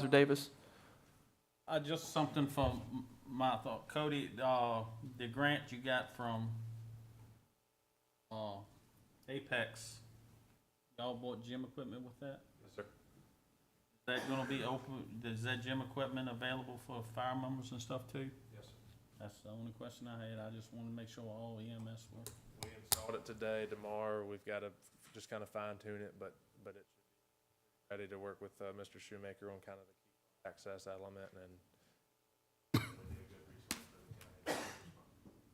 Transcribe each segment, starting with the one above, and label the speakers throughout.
Speaker 1: Mr. Davis?
Speaker 2: Uh, just something from m- my thought, Cody, uh, the grant you got from, uh, Apex, y'all bought gym equipment with that?
Speaker 3: Yes, sir.
Speaker 2: Is that gonna be open, is that gym equipment available for fire members and stuff too?
Speaker 3: Yes, sir.
Speaker 2: That's the only question I had, I just wanted to make sure all EMS were.
Speaker 3: We installed it today, tomorrow, we've got to just kind of fine tune it, but, but it's ready to work with, uh, Mr. Shoemaker on kind of the key access element and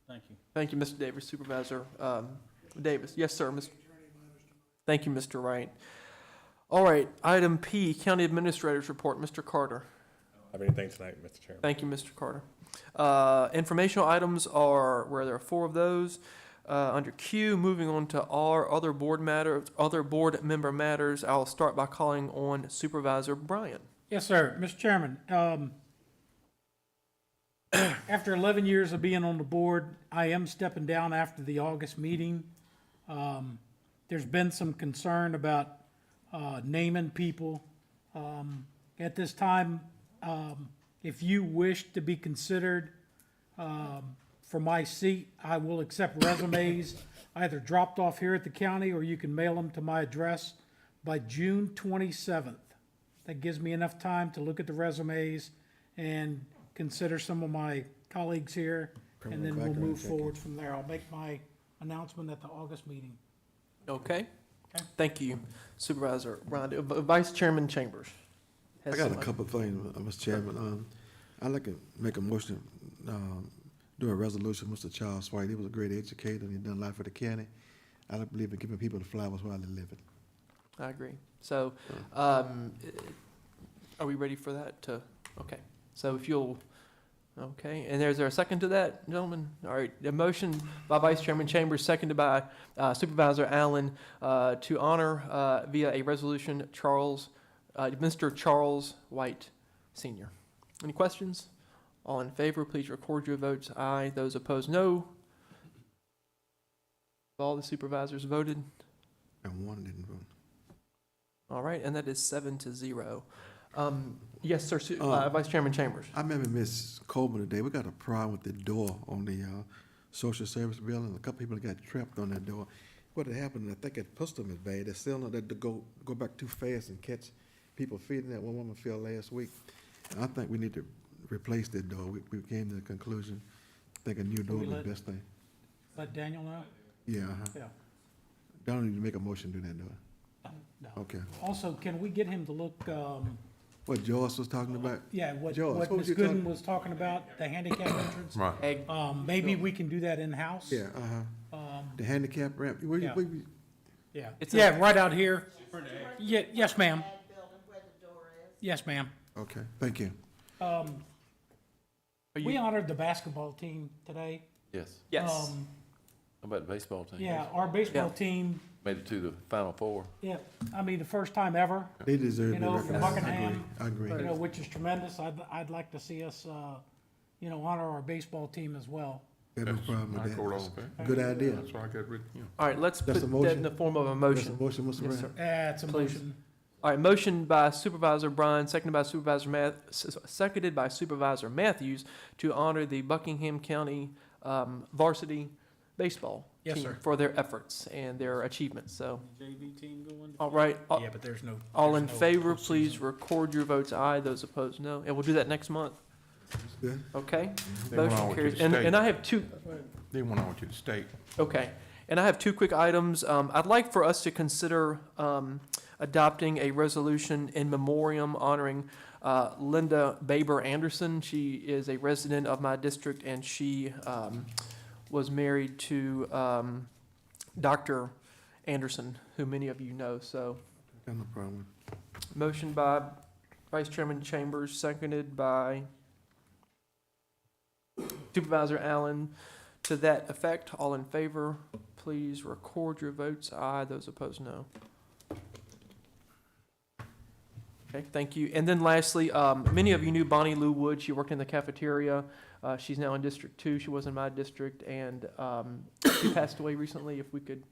Speaker 2: Thank you.
Speaker 1: Thank you, Mr. Davis, Supervisor um, Davis. Yes, sir, Mr. Thank you, Mr. Wright. All right, item P, County Administrator's Report, Mr. Carter.
Speaker 4: have anything tonight, Mr. Chairman.
Speaker 1: Thank you, Mr. Carter. Uh, Informational items are, where there are four of those. Uh, Under Q, moving on to R, other board matters, other board member matters. I'll start by calling on Supervisor Bryant.
Speaker 5: Yes, sir. Mr. Chairman, um, after 11 years of being on the board, I am stepping down after the August meeting. Um, There's been some concern about uh, naming people. Um, At this time, um, if you wish to be considered um, for my seat, I will accept resumes either dropped off here at the county or you can mail them to my address by June 27th. That gives me enough time to look at the resumes and consider some of my colleagues here, and then we'll move forward from there. I'll make my announcement at the August meeting.
Speaker 1: Okay?
Speaker 5: Okay.
Speaker 1: Thank you, Supervisor Bryant. Uh, Vice Chairman Chambers. has
Speaker 6: I got a
Speaker 1: something.
Speaker 6: couple of things, uh, Mr. Chairman. Um, I'd like to make a motion, um, do a resolution, Mr. Charles White. He was a great educator and he done a lot for the county. I don't believe in giving people the flowers while they live it.
Speaker 1: I agree. So, um, are we ready for that to, okay. So if you'll, okay, and there's there a second to that, gentlemen? All right, a motion by Vice Chairman Chambers, seconded by uh, Supervisor Allen, uh, to honor, uh, via a resolution, Charles, uh, Mr. Charles White Senior. Any questions? All in favor, please record your votes. Aye. Those opposed, no. All the supervisors voted.
Speaker 6: And one didn't vote.
Speaker 1: All right, and that is seven to zero. Um, Yes, sir, Su-
Speaker 6: Um,
Speaker 1: uh, Vice Chairman Chambers.
Speaker 6: I remember Miss Coleman today. We got a problem with the door on the, uh, social service building. A couple people got trapped on that door. What had happened, I think that pushed them as bad. They still know that to go, go back too fast and catch people feeding that one woman fell last week. I think we need to replace that door. We, we came to the conclusion, think a new door
Speaker 5: we
Speaker 6: would be
Speaker 5: let-
Speaker 6: the best thing.
Speaker 5: Let Daniel know?
Speaker 6: Yeah, uh-huh.
Speaker 5: Yeah.
Speaker 6: Don't need to make a motion to do that door.
Speaker 5: Uh, No.
Speaker 6: Okay.
Speaker 5: Also, can we get him to look, um,
Speaker 6: What Joyce was talking about?
Speaker 5: yeah, what,
Speaker 6: George,
Speaker 5: what
Speaker 6: what
Speaker 5: Ms.
Speaker 6: was you talking-
Speaker 5: Gooden was talking about, the handicap entrance? Right.
Speaker 1: Egg.
Speaker 5: Um, maybe we can do that in-house?
Speaker 6: Yeah, uh-huh.
Speaker 5: Um,
Speaker 6: The handicap ramp. Where you,
Speaker 5: Yeah.
Speaker 6: where you,
Speaker 5: yeah.
Speaker 1: It's a-
Speaker 5: Yeah, right out here. Yeah, yes, ma'am. Yes, ma'am.
Speaker 6: okay, thank you.
Speaker 5: Um,
Speaker 1: Are
Speaker 5: we
Speaker 1: you-
Speaker 5: honored the basketball team today.
Speaker 7: Yes.
Speaker 1: Yes,
Speaker 5: Um,
Speaker 7: How about the baseball team?
Speaker 5: Yeah, our baseball
Speaker 1: Yeah.
Speaker 5: team,
Speaker 7: Made it to the Final Four.
Speaker 5: yeah, I mean, the first time ever,
Speaker 6: They deserve
Speaker 5: You
Speaker 6: to be
Speaker 5: know,
Speaker 6: recognized. I agree.
Speaker 5: Buckingham,
Speaker 6: I agree.
Speaker 5: you know, which is tremendous. I'd, I'd like to see us, uh, you know, honor our baseball team as well.
Speaker 6: Got no problem
Speaker 8: I
Speaker 6: with
Speaker 8: called
Speaker 6: that.
Speaker 8: all of it.
Speaker 6: Good idea.
Speaker 8: That's why I got rid, you know.
Speaker 1: all right, let's put
Speaker 6: That's a
Speaker 1: that in
Speaker 6: motion.
Speaker 1: the form of a
Speaker 6: That's a
Speaker 1: motion.
Speaker 6: motion, Mr.
Speaker 1: Yes,
Speaker 6: Brown.
Speaker 1: sir.
Speaker 5: That's a
Speaker 1: Please.
Speaker 5: motion.
Speaker 1: All right, motion by Supervisor Bryan, seconded by Supervisor Math, s- seconded by Supervisor Matthews to honor the Buckingham County um, varsity baseball
Speaker 5: Yes,
Speaker 1: team
Speaker 5: sir.
Speaker 1: for their efforts and their achievements, so,
Speaker 2: JV team going?
Speaker 1: all right. uh, a-
Speaker 5: Yeah, but there's no.
Speaker 1: All
Speaker 5: there's
Speaker 1: in
Speaker 5: no
Speaker 1: favor,
Speaker 5: postseason.
Speaker 1: please record your votes aye. Those opposed, no. And we'll do that next month,
Speaker 6: Good.
Speaker 1: okay?
Speaker 8: They went on with
Speaker 1: Motion
Speaker 8: you
Speaker 1: carries.
Speaker 8: to
Speaker 1: And, and
Speaker 8: state.
Speaker 1: I have two,
Speaker 8: They went on with you to state.
Speaker 1: Okay, and I have two quick items. Um, I'd like for us to consider, um, adopting a resolution in memoriam honoring, uh, Linda Baber Anderson. She is a resident of my district and she, um, was married to, um, Dr. Anderson, who many of you know, so.
Speaker 6: Got no problem.
Speaker 1: Motion by Vice Chairman Chambers, seconded by Supervisor Allen. To that effect, all in favor, please record your votes. Aye, those opposed, no. Okay, thank you. And then lastly, um, many of you knew Bonnie Lou Wood. She worked in the cafeteria. Uh, she's now in District Two. She was in my district and, um, she passed away recently. If we could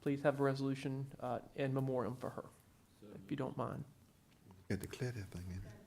Speaker 1: please have a resolution, uh, in memoriam for her, if you don't mind.
Speaker 6: Got to clear that thing in.